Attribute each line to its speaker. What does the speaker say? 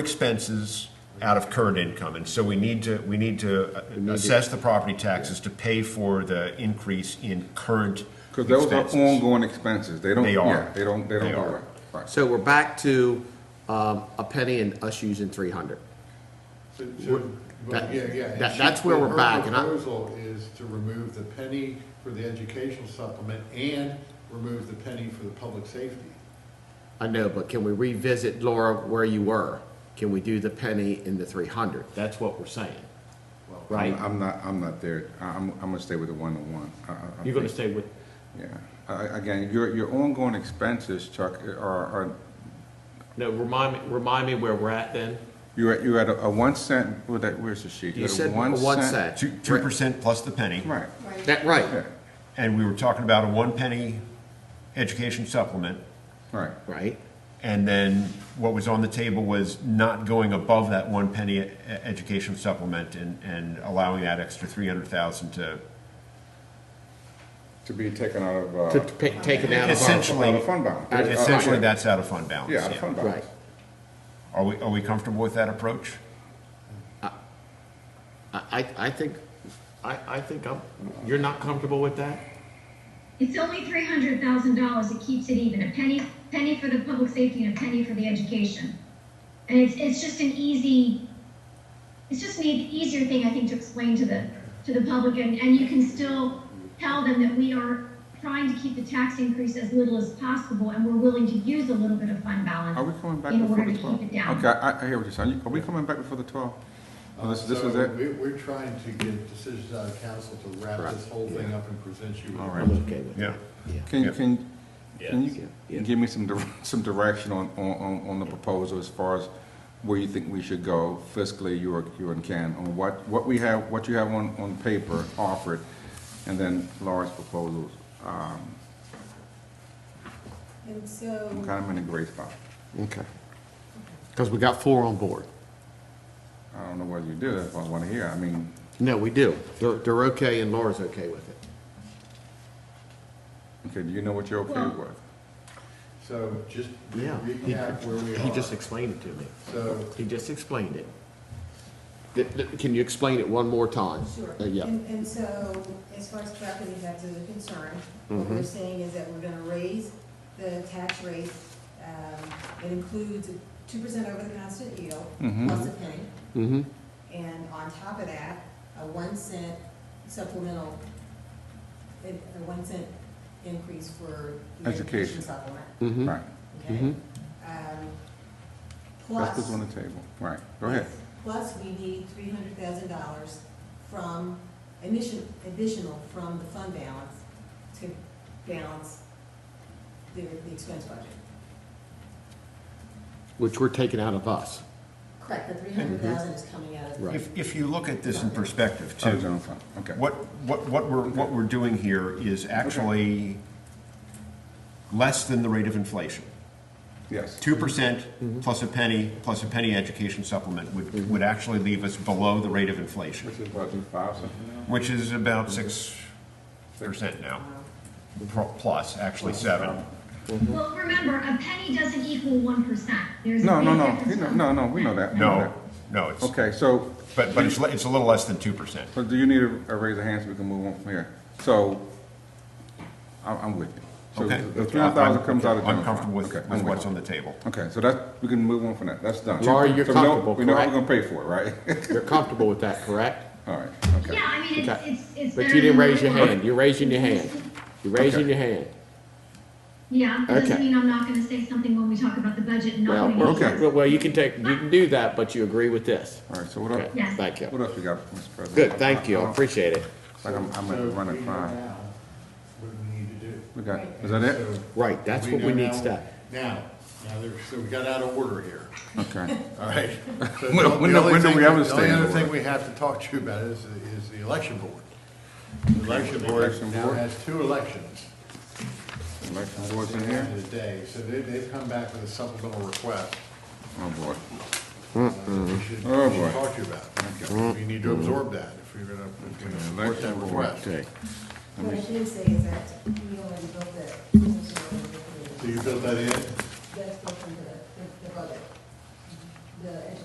Speaker 1: expenses out of current income, and so we need to, we need to assess the property taxes to pay for the increase in current
Speaker 2: Because those are
Speaker 1: expenses.
Speaker 2: ongoing expenses, they don't,
Speaker 1: They are.
Speaker 2: yeah, they don't, they don't
Speaker 1: They
Speaker 2: go
Speaker 1: are.
Speaker 2: away. Right.
Speaker 3: So we're back to um, a penny and us using three hundred.
Speaker 4: So- so- But
Speaker 3: that-
Speaker 4: yeah, yeah. and
Speaker 3: that-
Speaker 4: she-
Speaker 3: that's where we're
Speaker 4: her
Speaker 3: back, and I-
Speaker 4: proposal is to remove the penny for the educational supplement and remove the penny for the public safety.
Speaker 3: I know, but can we revisit, Laura, where you were? Can we do the penny in the three hundred? That's what we're saying, right?
Speaker 2: I'm not, I'm not there, I- I'm, I'm gonna stay with the one-to-one. I- I- I
Speaker 3: You're gonna
Speaker 2: think-
Speaker 3: stay with,
Speaker 2: Yeah, I- I- again, your, your ongoing expenses, Chuck, are, are,
Speaker 3: no, remind me, remind me where we're at then?
Speaker 2: you're at, you're at a a one cent, well, that, where's the sheet?
Speaker 3: You
Speaker 2: You're at a
Speaker 3: said one cent.
Speaker 1: Two, two percent plus the penny,
Speaker 2: Right,
Speaker 3: That, right,
Speaker 2: yeah,
Speaker 1: and we were talking about a one penny education supplement,
Speaker 2: right.
Speaker 3: right?
Speaker 1: and then what was on the table was not going above that one penny e- education supplement and, and allowing that extra three hundred thousand to
Speaker 2: Uh, To be taken out of,
Speaker 3: To
Speaker 2: uh,
Speaker 3: pick- taken out of our,
Speaker 1: essentially.
Speaker 2: Out of fund balance. Out of-
Speaker 1: Essentially, that's out of fund balance.
Speaker 2: uh, yeah, out of fund
Speaker 3: right.
Speaker 2: balance.
Speaker 1: Are we, are we comfortable with that approach?
Speaker 3: I, I, I think, I, I think I'm, you're not comfortable with that?
Speaker 5: It's only three hundred thousand dollars, it keeps it even, a penny, penny for the public safety and a penny for the education. And it's, it's just an easy, it's just an e- easier thing, I think, to explain to the, to the public, and, and you can still tell them that we are trying to keep the tax increase as little as possible, and we're willing to use a little bit of fund balance.
Speaker 2: Are we coming back
Speaker 5: in
Speaker 2: before
Speaker 5: order
Speaker 2: the
Speaker 5: to
Speaker 2: twelve?
Speaker 5: keep it down.
Speaker 2: Okay, I, I hear what you're saying, are we coming back before the twelve?
Speaker 3: Oh,
Speaker 4: Uh,
Speaker 2: This, this
Speaker 4: so
Speaker 2: is it?
Speaker 4: we- We're trying to get decisions out of council to wrap this whole thing up and present you. with-
Speaker 2: All right.
Speaker 3: I'm okay with it.
Speaker 1: Yeah. Yeah.
Speaker 2: Can, can, can
Speaker 3: Yeah.
Speaker 2: you give me some, dir- some direction on, on, on- on the proposal as far as where you think we should go fiscally, you or, you and Ken, on what, what we have, what you have on, on paper offered, and then Laura's proposals? Um,
Speaker 6: And
Speaker 2: I'm
Speaker 6: so,
Speaker 2: kind of in a gray spot.
Speaker 3: Okay. Because we got four on board.
Speaker 2: I don't know whether you do, if I want to hear, I mean,
Speaker 3: No, we do. They're, they're okay and Laura's okay with it.
Speaker 2: okay, do you know what you're okay
Speaker 5: Well-
Speaker 2: with?
Speaker 4: So just
Speaker 3: Yeah.
Speaker 4: recap where we
Speaker 3: He just
Speaker 4: are.
Speaker 3: explained it to me.
Speaker 4: So
Speaker 3: He just explained it. Th- th- Can you explain it one more time?
Speaker 6: sure.
Speaker 3: Uh, Yeah,
Speaker 6: And, and so, as far as property taxes are concerned, what we're saying is that we're gonna raise the tax rate, um, it includes two percent over the constant yield, plus a penny.
Speaker 3: Mm-hmm,
Speaker 6: And on top of that, a one cent supplemental, a a one cent increase for the
Speaker 2: Education.
Speaker 6: education supplement,
Speaker 3: Hmm? mm-hmm.
Speaker 2: Right,
Speaker 6: okay? Um,
Speaker 2: that's
Speaker 6: Plus.
Speaker 2: what's on the table, right, go ahead.
Speaker 6: Plus, we need three hundred thousand dollars from, addition, additional from the fund balance to balance the, the expense budget.
Speaker 3: which we're taking out of us.
Speaker 6: Correct, the three hundred thousand is coming out of.
Speaker 3: Right.
Speaker 1: If, if you look at this in perspective
Speaker 2: Oh,
Speaker 1: too,
Speaker 2: general fund, okay.
Speaker 1: what, what, what we're, what we're doing here is actually less than the rate of inflation.
Speaker 2: Yes,
Speaker 1: Two percent
Speaker 2: Mm-hmm.
Speaker 1: plus a penny, plus a penny education supplement would, would actually leave us below the rate of inflation,
Speaker 2: which is about five, something now?
Speaker 1: which is about
Speaker 2: Mm-hmm.
Speaker 1: six percent now, Pro- plus, actually seven.
Speaker 5: Well, remember, a penny doesn't equal one percent, there's a
Speaker 2: No, no,
Speaker 5: big
Speaker 2: no,
Speaker 5: difference
Speaker 2: You know-
Speaker 5: from-
Speaker 2: no, no, we know that. we know
Speaker 1: No, no,
Speaker 2: that.
Speaker 1: it's,
Speaker 2: Okay, so
Speaker 1: but, but it's, li- it's a little less than two percent.
Speaker 2: So do you need a a raise of hands so we can move on from here? So, I'm, I'm with you. So
Speaker 1: Okay.
Speaker 2: The three hundred thousand
Speaker 1: I'm-
Speaker 2: comes out of general
Speaker 1: I'm
Speaker 2: fund.
Speaker 1: comfortable with,
Speaker 2: Okay, I'm
Speaker 1: with
Speaker 2: you.
Speaker 1: what's on the table.
Speaker 2: Okay, so that, we can move on from that, that's done.
Speaker 3: Laura, you're
Speaker 2: So we know-
Speaker 3: comfortable,
Speaker 2: We know how
Speaker 3: correct?
Speaker 2: we're gonna pay for it, right?
Speaker 3: You're comfortable with that, correct?
Speaker 2: All right, okay.
Speaker 5: Yeah, I mean, it's,
Speaker 3: Okay.
Speaker 5: it's, it's.
Speaker 3: But
Speaker 5: better
Speaker 3: you didn't
Speaker 5: than
Speaker 3: raise your
Speaker 5: nothing.
Speaker 3: hand. You're raising your hand. You're raising
Speaker 2: Okay.
Speaker 3: your hand.
Speaker 5: Yeah, doesn't
Speaker 3: Okay.
Speaker 5: mean I'm not gonna say something when we talk about the budget and
Speaker 3: Well,
Speaker 5: not
Speaker 3: we're
Speaker 5: going
Speaker 2: okay.
Speaker 3: well, well, you can take, you can do that, but you agree with this.
Speaker 2: All right, so what
Speaker 3: Okay,
Speaker 2: else,
Speaker 5: Yes.
Speaker 3: thank
Speaker 2: what
Speaker 3: you.
Speaker 2: else we got, Mr. President?
Speaker 3: Good, thank you.
Speaker 2: I
Speaker 3: I
Speaker 2: don't-
Speaker 3: appreciate it.
Speaker 2: Like, I'm, I'm
Speaker 4: so
Speaker 2: gonna run
Speaker 4: we
Speaker 2: at
Speaker 4: know
Speaker 2: five.
Speaker 4: now What we need to do.
Speaker 2: We got, is that it?
Speaker 4: So-
Speaker 3: Right, that's
Speaker 4: We
Speaker 3: what we
Speaker 4: know
Speaker 3: need
Speaker 4: now-
Speaker 3: to,
Speaker 4: Now, now, there- so we got out of order here,
Speaker 2: Okay.
Speaker 4: all right? So
Speaker 2: When-
Speaker 4: the
Speaker 2: when do-
Speaker 4: only
Speaker 2: when do
Speaker 4: thing-
Speaker 2: we have a
Speaker 4: The
Speaker 2: standing
Speaker 4: only other
Speaker 2: order?
Speaker 4: thing we have to talk to you about is, is the election board. The election board
Speaker 2: Election
Speaker 4: now
Speaker 2: board.
Speaker 4: has two elections.
Speaker 2: Election
Speaker 4: at
Speaker 2: board's
Speaker 4: the
Speaker 2: in
Speaker 4: end
Speaker 2: here?
Speaker 4: of the day, so they, they've come back with a supplemental request.
Speaker 2: Oh, boy.
Speaker 4: uh, that We should,
Speaker 2: Oh,
Speaker 4: we should
Speaker 2: boy. Mm-hmm.
Speaker 4: talk to you about. We need to absorb that if we're gonna, if we're gonna support that
Speaker 2: Election board.
Speaker 4: request.
Speaker 3: okay.
Speaker 6: What I did say is that we already built the.
Speaker 4: So you built that in?
Speaker 6: That's built into the, the- the budget. the education